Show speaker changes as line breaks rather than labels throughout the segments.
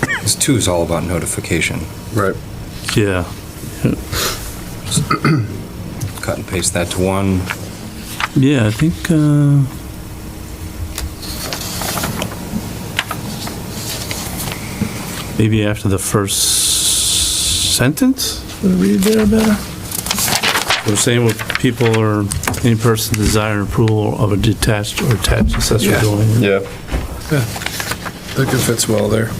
Because two is all about notification.
Right.
Yeah,
Cut and paste that to one.
yeah, I think, uh, maybe after the first sentence, would read there better? We're saying with people or any person desiring approval of a detached or attached accessory
Yeah.
building.
Yeah.
I think it fits well there.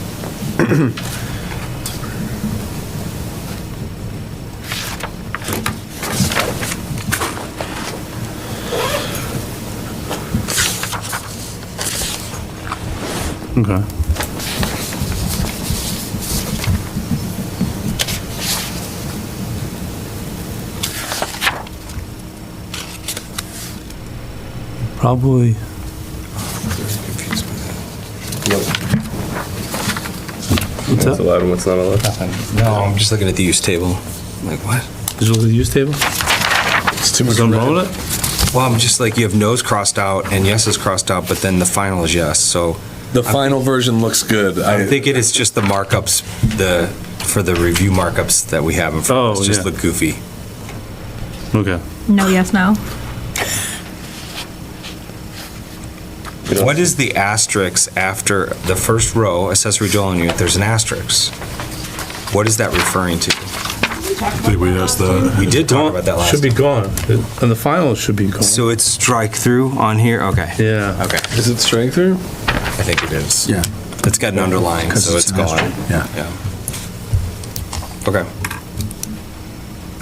Okay. Probably,
Confused with
what's
What's
that?
allowed and what's not allowed?
that. Nothing. No, I'm just looking at the use table. I'm Like, what?
Is it the use table?
It's too much.
Something wrong
red.
with it?
Well, I'm just like, you have no's crossed out and yes is crossed out, but then the final is yes. So
The final version looks good.
I think it is just the markups, the, for the review markups that we have in front of us,
Oh,
just
yeah.
look goofy.
Okay.
No, yes, no.
You know,
What is the asterisk after the first row, accessory dwelling unit, there's an asterisk? What is that referring to?
think we asked that.
We did talk about that last.
Should be gone, and the final should be gone.
So it's strike through on here? Okay.
Yeah,
Okay,
Is it strength through?
I think it is.
Yeah.
It's got an underline, so it's gone.
Yeah.
Yeah. Okay.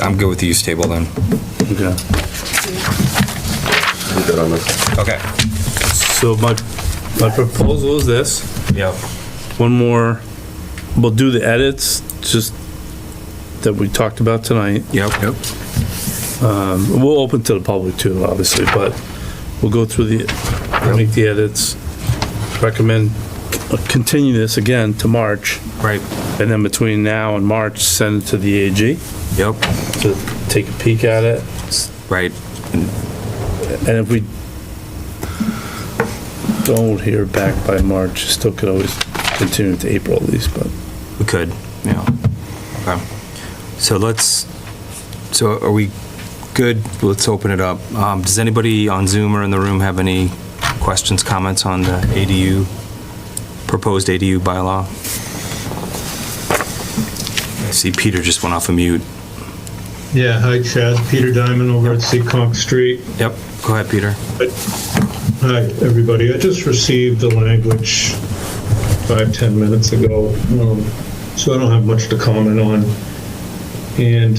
I'm good with the use table then.
okay.
I'm good on this.
Okay.
So my, my proposal is this.
Yep.
one more, we'll do the edits, just that we talked about tonight.
Yep. Yep.
We'll open to the public too, obviously, but we'll go through the, make the edits, recommend, continue this again to March,
Right.
and then between now and March, send it to the AG
Yep.
to take a peek at it.
Right.
And if we don't hear back by March, still could always continue to April at least, but.
We could. Yeah. Okay. So let's, so are we good? Let's open it up. Um, does anybody on Zoom or in the room have any questions, comments on the ADU, proposed ADU bylaw? I see Peter just went off a mute.
Yeah, hi Chad, Peter Diamond over at Seekonk Street.
Yep. Go ahead, Peter.
Hi, everybody. I just received the language five ten minutes ago, um, so I don't have much to comment on. And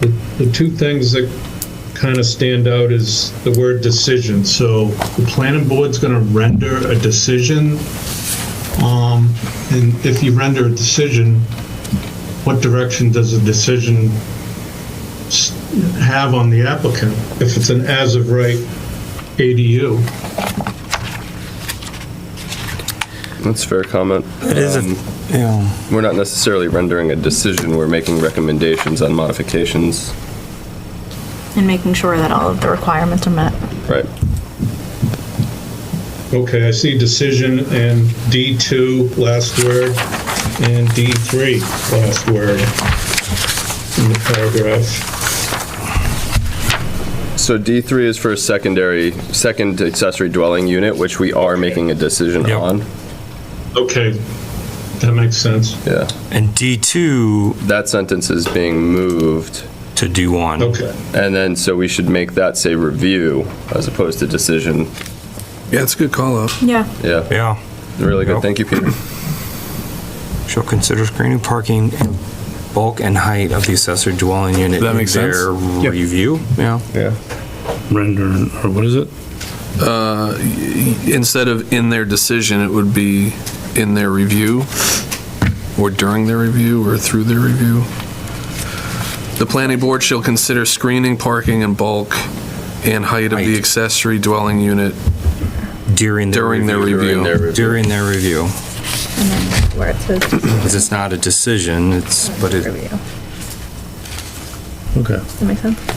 the, the two things that kind of stand out is the word decision. So the planning board's going to render a decision. Um, and if you render a decision, what direction does the decision s- have on the applicant? If it's an as-of-right ADU.
That's a fair comment.
It is a-
Um,
Yeah.
We're not necessarily rendering a decision, we're making recommendations on modifications.
And making sure that all of the requirements are met.
Right.
Okay, I see decision and D2, last word, and D3, last word in the paragraph.
So D3 is for a secondary, second accessory dwelling unit, which we are making a decision
Yep.
on.
Okay, that makes sense.
Yeah.
And D2
That sentence is being moved.
to D1.
Okay,
And then, so we should make that say review as opposed to decision.
Yeah, it's a good call out.
Yeah.
Yeah,
Yeah.
really good.
Yep.
Thank you, Peter.
Shall consider screening, parking, and bulk and height of the accessory dwelling unit.
That
in
makes sense.
Their
Yep.
review. Yeah.
Yeah.
Render, or what is it?
Instead of in their decision, it would be in their review, or during their review, or through their review. The planning board shall consider screening, parking, and bulk, and height of the
Height.
accessory dwelling unit
During their
during their
review.
review.
their review.
During their review.
And then where it says
Because it's not a decision, it's, but it,
review.
Okay.
Does that make sense?